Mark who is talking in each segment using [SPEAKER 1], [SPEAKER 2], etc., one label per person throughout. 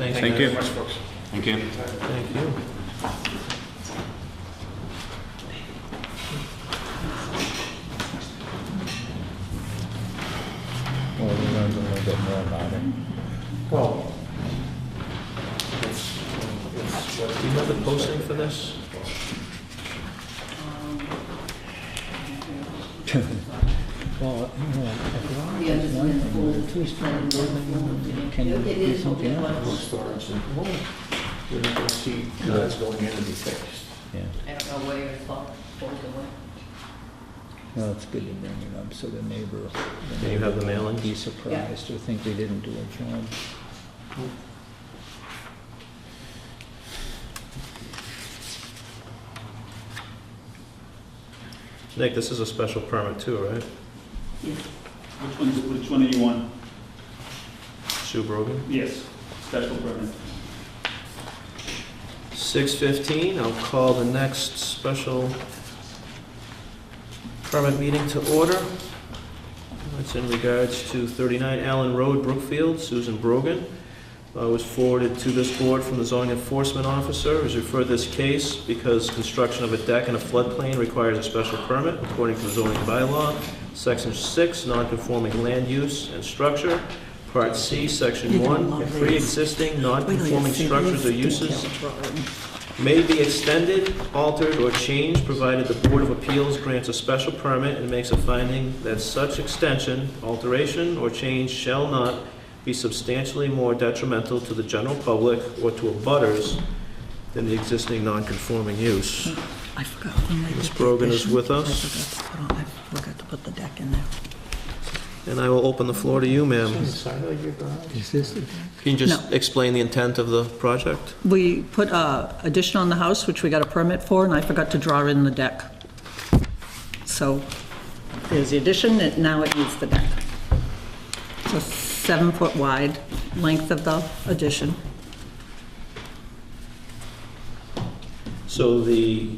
[SPEAKER 1] Thank
[SPEAKER 2] you.
[SPEAKER 1] very much, folks.
[SPEAKER 2] Thank you.
[SPEAKER 3] Thank you.
[SPEAKER 4] Well, we learned a little bit more about it.
[SPEAKER 1] Well, it's, it's what
[SPEAKER 3] Do you have the posting for this?
[SPEAKER 4] Well, you know, if you want
[SPEAKER 5] Yeah,
[SPEAKER 4] to
[SPEAKER 5] it's
[SPEAKER 4] do one
[SPEAKER 5] been
[SPEAKER 4] thing,
[SPEAKER 5] full.
[SPEAKER 4] but two strand building, can you
[SPEAKER 5] It
[SPEAKER 4] do
[SPEAKER 5] is what
[SPEAKER 4] something
[SPEAKER 5] it
[SPEAKER 4] else?
[SPEAKER 5] was.
[SPEAKER 1] storage and You're not gonna see cars going in to be fixed.
[SPEAKER 4] Yeah,
[SPEAKER 5] I don't know where it's all, what it was.
[SPEAKER 4] well, it's good to bring it up so the neighbor. the
[SPEAKER 3] Do you have the
[SPEAKER 4] neighbor
[SPEAKER 3] mailing?
[SPEAKER 4] won't Be surprised or think we didn't do a job.
[SPEAKER 3] Nick, this is a special permit too, right?
[SPEAKER 6] Which one, which one do you want?
[SPEAKER 3] Sue Brogan?
[SPEAKER 6] Yes, special permit.
[SPEAKER 3] 6:15, I'll call the next special permit meeting to order. That's in regards to 39 Allen Road, Brookfield, Susan Brogan. Uh, Was forwarded to this board from the zoning enforcement officer, has referred this case because construction of a deck in a floodplain requires a special permit according to the zoning bylaw, Section 6, non-conforming land use and structure, Part C, Section
[SPEAKER 7] You don't
[SPEAKER 3] 1,
[SPEAKER 7] want
[SPEAKER 3] if
[SPEAKER 7] raised-
[SPEAKER 3] pre-existing non-conforming structures or uses
[SPEAKER 7] Well,
[SPEAKER 3] may be extended, altered, or changed, provided the Board of Appeals grants a special permit and makes a finding that such extension, alteration, or change shall not be substantially more detrimental to the general public or to abutters than the existing non-conforming use.
[SPEAKER 7] I forgot when I did
[SPEAKER 3] Ms.
[SPEAKER 7] the
[SPEAKER 3] Brogan is
[SPEAKER 7] addition,
[SPEAKER 3] with
[SPEAKER 7] I
[SPEAKER 3] us.
[SPEAKER 7] forgot to put on- I forgot to put the deck in there.
[SPEAKER 3] And I will open the floor to you, ma'am.
[SPEAKER 4] Is this the
[SPEAKER 3] Can you just
[SPEAKER 7] No.
[SPEAKER 3] explain the intent of the project?
[SPEAKER 7] We put uh, addition on the house, which we got a permit for, and I forgot to draw in the deck. So there's the addition, and now it needs the deck. So seven-foot wide length of the addition.
[SPEAKER 3] So the,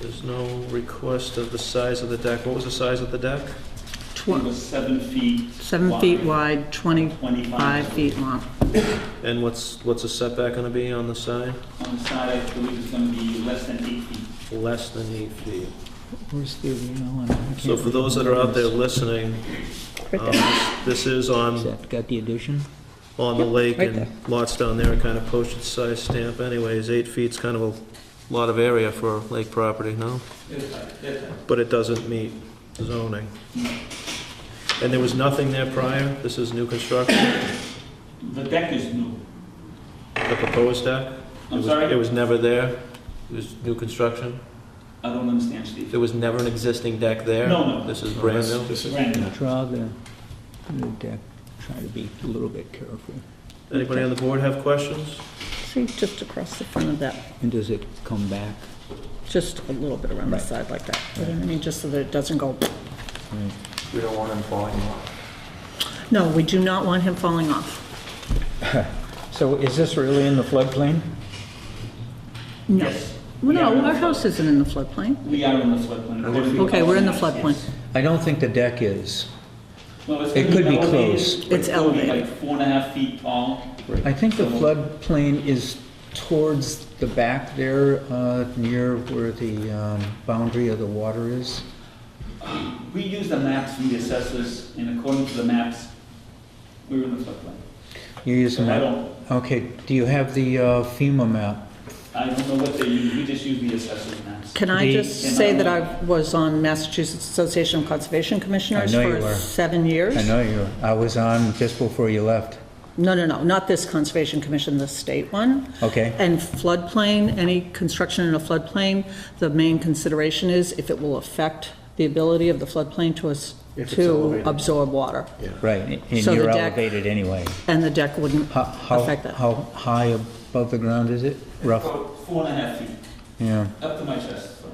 [SPEAKER 3] there's no request of the size of the deck. What was the size of the deck?
[SPEAKER 7] Tw-
[SPEAKER 6] It was seven feet.
[SPEAKER 7] Seven feet wide, 25
[SPEAKER 6] 25.
[SPEAKER 7] feet long.
[SPEAKER 3] And what's, what's the setback gonna be on the side?
[SPEAKER 6] On the side, I believe it's gonna be less than eight feet.
[SPEAKER 3] Less than eight feet.
[SPEAKER 4] Where's the original? and I can't
[SPEAKER 3] So for those that are out there
[SPEAKER 4] remember
[SPEAKER 3] listening, um, this is
[SPEAKER 4] this. Is
[SPEAKER 3] on,
[SPEAKER 4] that got the addition?
[SPEAKER 3] on the lake
[SPEAKER 7] right
[SPEAKER 3] and
[SPEAKER 7] there.
[SPEAKER 3] lots down there are kind of postage size stamp anyways. Eight feet's kind of a lot of area for lake property, no?
[SPEAKER 6] Yes, sir. Yes, sir.
[SPEAKER 3] But it doesn't meet zoning. And there was nothing there prior? This is new construction,
[SPEAKER 6] The deck is new.
[SPEAKER 3] the proposed deck? It
[SPEAKER 6] I'm
[SPEAKER 3] was-
[SPEAKER 6] sorry?
[SPEAKER 3] It was never there? It was new construction?
[SPEAKER 6] I don't understand, Steve.
[SPEAKER 3] There was never an existing deck there?
[SPEAKER 6] No, no.
[SPEAKER 3] This is brand new?
[SPEAKER 1] This is-
[SPEAKER 6] Brand new.
[SPEAKER 4] Draw the, the deck, try to be a little bit careful.
[SPEAKER 3] Anybody on the board have questions?
[SPEAKER 7] See, just across the front of that,
[SPEAKER 4] And does it come back?
[SPEAKER 7] just a little bit around the
[SPEAKER 4] Right.
[SPEAKER 7] side like that. You know what I mean, just so that it doesn't go
[SPEAKER 4] Right.
[SPEAKER 1] We don't want them falling off.
[SPEAKER 7] No, we do not want him falling off.
[SPEAKER 4] So is this really in the floodplain?
[SPEAKER 7] No.
[SPEAKER 6] Yes.
[SPEAKER 7] No, our house isn't in the floodplain.
[SPEAKER 6] We are in the floodplain.
[SPEAKER 7] Okay, we're in the floodplain.
[SPEAKER 4] I don't think the deck is.
[SPEAKER 6] Well, it's
[SPEAKER 4] It
[SPEAKER 6] gonna
[SPEAKER 4] could be
[SPEAKER 6] elevated.
[SPEAKER 4] close.
[SPEAKER 7] It's
[SPEAKER 6] gonna be
[SPEAKER 7] elevated.
[SPEAKER 6] Like four and a half feet tall.
[SPEAKER 4] I think the floodplain is towards the back there, uh, near where the um, boundary of the water is.
[SPEAKER 6] We use the maps from the assessors, and according to the maps, we're in the floodplain.
[SPEAKER 4] You use the
[SPEAKER 6] I
[SPEAKER 4] map?
[SPEAKER 6] don't,
[SPEAKER 4] Okay, do you have the uh, FEMA map?
[SPEAKER 6] I don't know what they use, we just use the assessor's maps.
[SPEAKER 7] Can I
[SPEAKER 4] The-
[SPEAKER 7] just say that I was on Massachusetts Association of Conservation Commissioners
[SPEAKER 4] know you
[SPEAKER 7] for
[SPEAKER 4] were.
[SPEAKER 7] seven years?
[SPEAKER 4] I know you, I was on just before you left.
[SPEAKER 7] No, no, no, not this Conservation Commission, the state one.
[SPEAKER 4] Okay.
[SPEAKER 7] And floodplain, any construction in a floodplain, the main consideration is if it will affect the ability of the floodplain to us,
[SPEAKER 1] If it's
[SPEAKER 7] to
[SPEAKER 1] elevated.
[SPEAKER 7] absorb water.
[SPEAKER 4] Right, and
[SPEAKER 7] So the
[SPEAKER 4] you're
[SPEAKER 7] deck-
[SPEAKER 4] elevated anyway.
[SPEAKER 7] And the deck wouldn't
[SPEAKER 4] How, how,
[SPEAKER 7] affect that.
[SPEAKER 4] how high above the ground is it? Rough,
[SPEAKER 6] About Four and a half feet,
[SPEAKER 4] yeah.
[SPEAKER 6] up to my chest, so.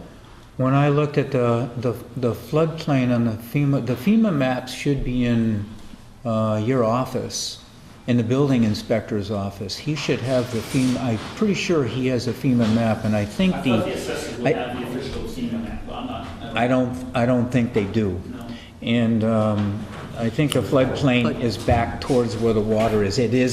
[SPEAKER 4] When I looked at the, the the floodplain on the FEMA, the FEMA maps should be in uh, your office, in the building inspector's office. He should have the FEMA, I'm pretty sure he has a FEMA map, and I
[SPEAKER 6] I
[SPEAKER 4] think
[SPEAKER 6] thought the
[SPEAKER 4] the,
[SPEAKER 6] assessors
[SPEAKER 4] I-
[SPEAKER 6] would have the official FEMA map, but I'm not.
[SPEAKER 4] I don't, I don't think they do.
[SPEAKER 6] No.
[SPEAKER 4] And um, I think the floodplain
[SPEAKER 7] But-
[SPEAKER 4] is back towards where the water is. It is